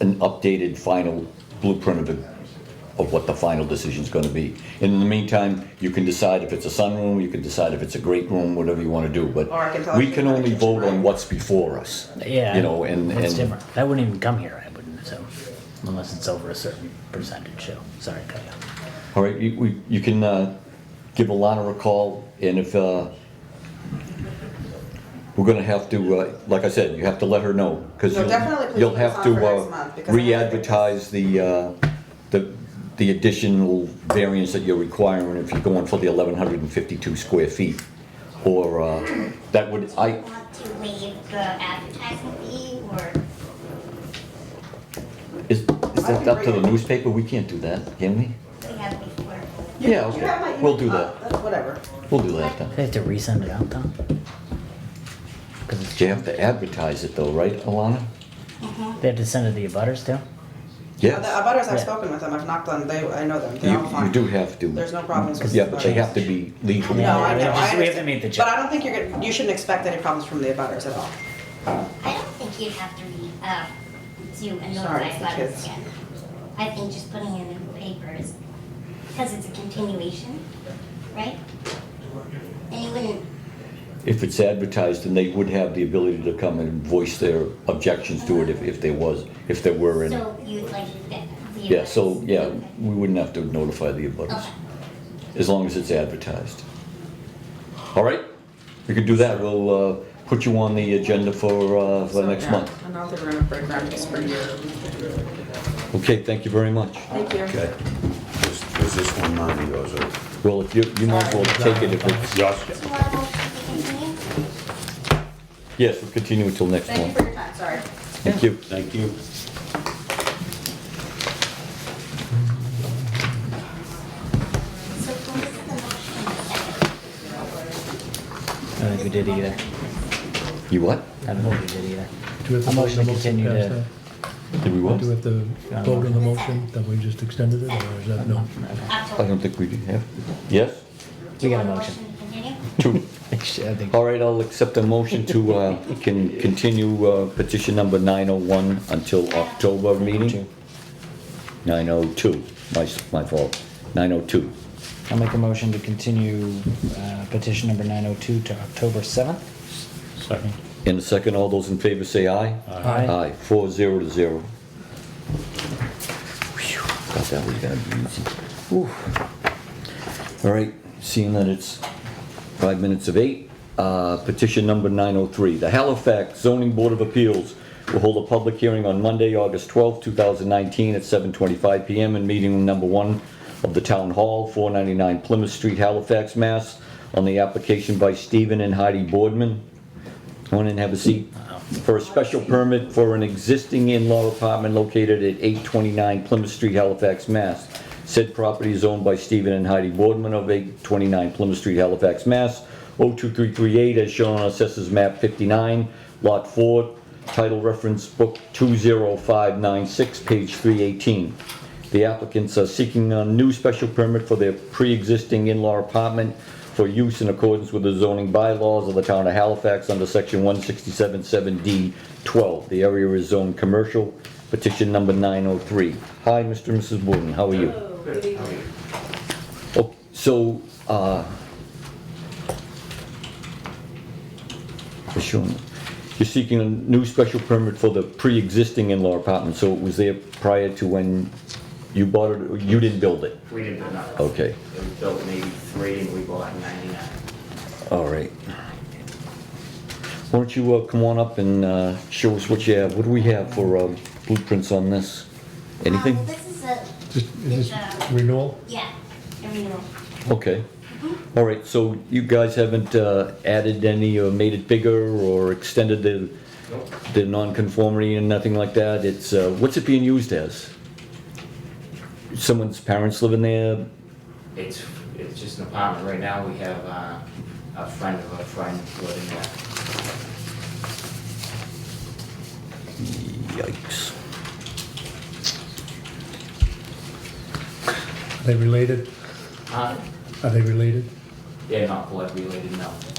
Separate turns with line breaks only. an updated final blueprint of the, of what the final decision's gonna be. And in the meantime, you can decide if it's a sunroom, you can decide if it's a great room, whatever you wanna do, but
Or I can talk to
we
you
can
about
only
a kitchen,
vote on
right?
what's before us.
Yeah.
You know, and,
It's
and
different. I wouldn't even come here, I wouldn't, so, unless it's over a certain percentage, so, sorry, cut you off.
All right, you, we- you can uh, give Alana a call, and if, uh, we're gonna have to, uh, like I said, you have to let her know, because
No,
you'll,
definitely put
you'll
this
have
on
to
for next
uh,
month, because I don't think
re-advertise the, uh, the, the additional variance that you're requiring if you're going for the 1,152 square feet, or uh, that would, I,
Want to waive the advertising fee or?
is, is that up to the newspaper? We can't do that, can we?
We have before.
Yeah,
You have
okay,
my email.
we'll do
Uh,
that,
that's Whatever.
we'll do that then.
They have to resend it out, Tom? Cause it's-
You have to advertise it though, right, Alana?
they have to send it to your butters too?
The
Yes.
abutters, I've
Yeah.
spoken with them, I've knocked on, they, I know them, they're all
You,
fine.
you do have to.
There's no problems with.
Yeah, but they have to be legal.
No, I
Yeah,
know, I
we just- we have to
understand.
meet the
But I
judge.
don't think you're, gonna- you shouldn't expect any problems from the abutters at all.
I don't think you'd have to re, uh, do a
Sorry, it's
notice
the
about
kids.
this again. I think just putting it in the papers, because it's a continuation, right? And you wouldn't,
If it's advertised, then they would have the ability to come and voice their objections to it if, if there was, if there were any.
so you'd like that. the
Yeah, so,
abutters.
yeah,
Okay.
we wouldn't have to notify the abutters,
Okay.
as long as it's advertised. All right, we could do that. We'll, uh, put you on the agenda for, uh, for
So,
next
yeah,
month.
I don't think we're gonna break ground this spring year.
Okay, thank you very much.
Thank you.
Okay. Was was this one mine or yours? or-
Well, if you, you might as well take it if it's,
Yours.
Do you want a motion to continue?
yes, we'll continue until next
Thank you
month.
for your time, sorry.
Thank you.
Thank you.
So who is the motion?
I don't think we did either.
You what?
I don't think we did either.
Do we have
A
to vote on
motion
the
to
motion
continue
to pass
to.
Did we
that?
what?
Do we have to vote on the motion that we just extended it, or is that no?
I
October.
don't think we do have. Yes?
Do you
got a
want
motion.
to continue?
Two.
I think.
All right, I'll accept a motion to uh, can continue uh, petition number 901 until October meeting. 902, my, s- my fault, 902.
I'll make a motion to continue uh, petition number 902 to October 7th.
Second.
In a second, all those in favor say aye.
Aye.
Aye, four zero to zero. Phew, Thought that was gonna be easy. Whew. All right, seeing that it's five minutes of eight, uh, petition number 903. The Halifax Zoning Board of Appeals will hold a public hearing on Monday, August 12, 2019, at 7:25 PM in meeting room number one of the Town Hall, 499 Plymouth Street, Halifax, Mass, on the application by Stephen and Heidi Boardman, Come on in, have a seat. For a special permit for an existing in-law apartment located at 829 Plymouth Street, Halifax, Mass. Said property is owned by Stephen and Heidi Boardman of 829 Plymouth Street, Halifax, Mass. 02338 as shown on Assessors Map 59, Lot 4, title reference book 20596, page 318. The applicants are seeking a new special permit for their pre-existing in-law apartment for use in accordance with the zoning bylaws of the town of Halifax under section 167-7D12. The area is zoned commercial, petition number 903. Hi, Mr. and Mrs. Wooten, how are you? Oh, So, uh, for sure, you're seeking a new special permit for the pre-existing in-law apartment, so it was there prior to when you bought it, or you didn't build it?
We didn't build that.
Okay,
It was built in eighty-three and we bought in ninety-nine.
all right. Why don't you uh, come on up and uh, show us what you have? What do we have for uh, blueprints on this? Anything?
Um, This is a,
Just, is
It's,
this
uh,
renewal?
yeah, a renewal.
Okay. All right, so you guys haven't uh, added any or made it bigger or extended the, the nonconformity and nothing like that? It's, uh, what's it being used as? Someone's parents living there?
It's, it's just an apartment. Right now, we have, uh, a friend of a friend living there.
Yikes.
Are they related?
Huh?
Are they related?
They're not blood related, no.